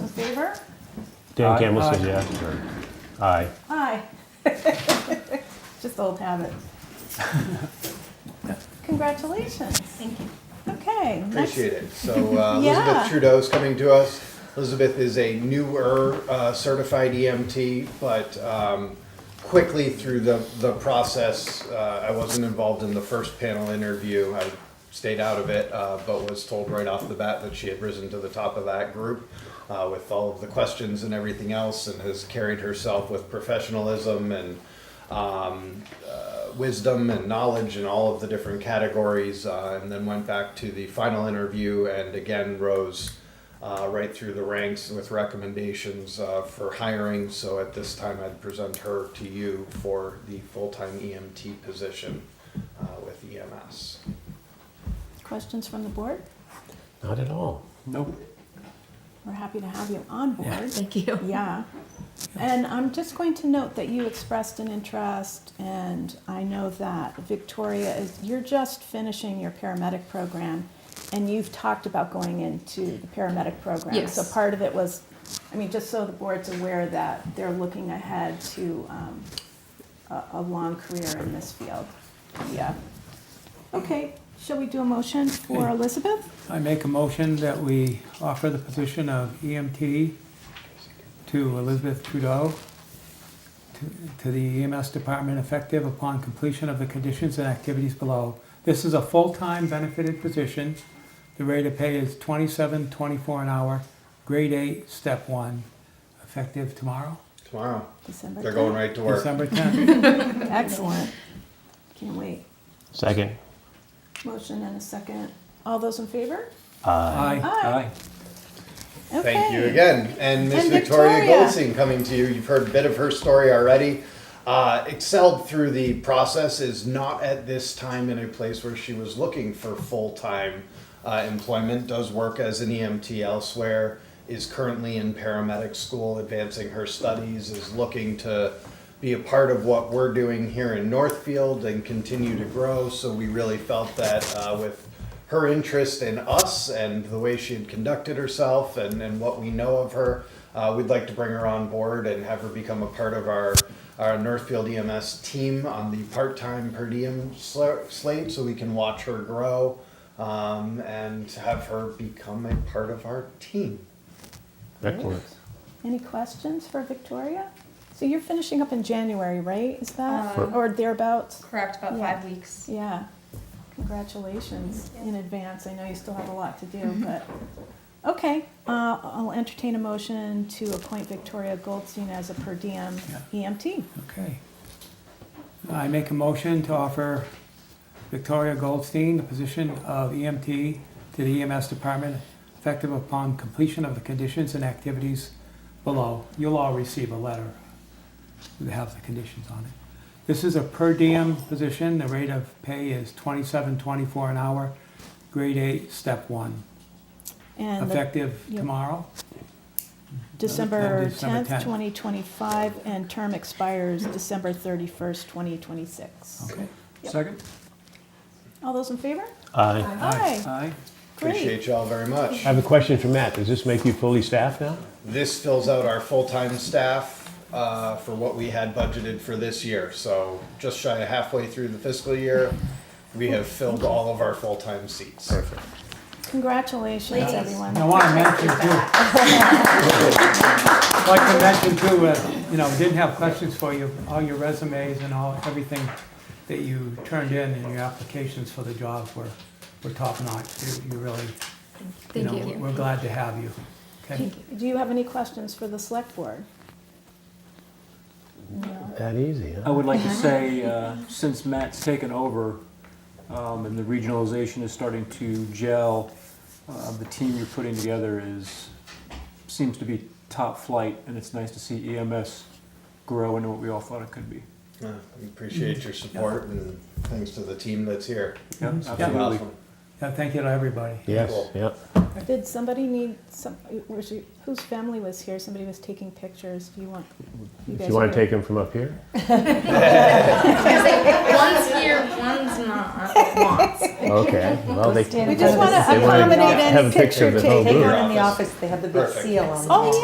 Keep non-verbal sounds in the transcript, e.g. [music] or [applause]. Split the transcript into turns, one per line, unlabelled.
favor?
Dan
Aye.
Campbell says
Aye.
yeah. Aye.
Aye. [laughs] Just old
[laughs]
habit. Congratulations.
Thank you.
Okay. next-
Appreciate it. So uh,
Yeah.
Elizabeth Trudeau's coming to us. Elizabeth is a newer uh, certified EMT, but um, quickly through the, the process, uh, I wasn't involved in the first panel interview. I stayed out of it, uh, but was told right off the bat that she had risen to the top of that group uh, with all of the questions and everything else and has carried herself with professionalism and um, uh, wisdom and knowledge in all of the different categories, uh, and then went back to the final interview and again rose uh, right through the ranks with recommendations uh, for hiring. So at this time, I'd present her to you for the full time EMT position uh, with EMS.
Questions from the board?
Not at all.
Nope.
We're happy to have you on board.
Thank you.
Yeah. And I'm just going to note that you expressed an interest, and I know that Victoria is, you're just finishing your paramedic program, and you've talked about going into the paramedic program.
Yes.
So part of it was, I mean, just so the board's aware that they're looking ahead to um, a, a long career in this field. Yeah. Okay, shall we do a motion for
Okay.
Elizabeth?
I make a motion that we offer the position of EMT to Elizabeth Trudeau to- to the EMS department effective upon completion of the conditions and activities below. This is a full-time benefited position. The rate of pay is twenty-seven, twenty-four an hour, grade eight, step one, effective tomorrow,
Tomorrow,
December
they're going
10th.
right to work.
December tenth.
Excellent. Can't wait.
Second.
Motion and a second. All those in favor?
Aye.
Aye.
Aye. Okay.
Thank you again. And Miss
And
Victoria,
Victoria.
Goldstein coming to you. You've heard a bit of her story already. Uh, excelled through the process, is not at this time in a place where she was looking for full time uh, employment, does work as an EMT elsewhere, is currently in paramedic school, advancing her studies, is looking to be a part of what we're doing here in Northfield and continue to grow. So we really felt that uh, with her interest in us and the way she had conducted herself and, and what we know of her. Uh, we'd like to bring her on board and have her become a part of our, our Northfield EMS team on the part time per diem sl- slate so we can watch her grow um, and have her become a part of our team.
Excellent.
Any questions for Victoria? So you're finishing up in January, right? Is that,
Um,
or thereabouts?
Correct, about
Yeah.
five weeks.
Yeah. Congratulations in advance. I know you still have a lot to do, but, okay. Uh, I'll entertain a motion to appoint Victoria Goldstein as a per diem E EMT.
Okay. I make a motion to offer Victoria Goldstein the position of EMT to the EMS department effective upon completion of the conditions and activities below. You'll all receive a letter that has the conditions on it. This is a per diem position. The rate of pay is twenty-seven, twenty-four an hour, grade eight, step one,
And the
effective
yeah.
tomorrow.
December
December
10th,
10th.
2025, and term expires December 31st, 2026.
Okay?
Yep.
Second?
All those in favor?
Aye.
Aye,
Aye.
great.
Appreciate you all very much.
I have a question for Matt. Does this make you fully staffed now?
This fills out our full time staff. Uh, for what we had budgeted for this year. So, just shy of halfway through the fiscal year, we have filled all of our full time seats.
Congratulations,
Ladies.
everyone.
I want to mention too. Like to mention too, uh, you know, didn't have questions for you, all your resumes and all, everything that you turned in and your applications for the jobs were, were top notch. You you really, you
Thank
know,
you.
we're glad to have you. Okay?
Thank [laughs] you.
Do you have any questions for the select board? No.
That easy,
I
huh?
would like to say, uh, since Matt's taken over um, and the regionalization is starting to gel, uh, the team you're putting together is, seems to be top flight, and it's nice to see EMS grow into what we all thought it could be.
Yeah, we appreciate your support and thanks to the team that's here.
Yeah,
Mhm. Yeah.
absolutely.
Awesome.
Yeah, Thank you to everybody.
Yes,
Cool.
yep.
Did somebody need some, was you- whose family was here? Somebody was taking pictures. Do you want, you
Do
guys?
you want
are-
to take him from up [laughs] here?
One's here, one's [laughs] not.
Okay. Well, they.
Stand
We just
in
want
front
to
of
they
the-
wanna
accommodate
have a
any
picture
picture
of Oh, the whole
taking.
group.
Take one in the office, they have the big
Perfect.
seal on the
Oh,
wall.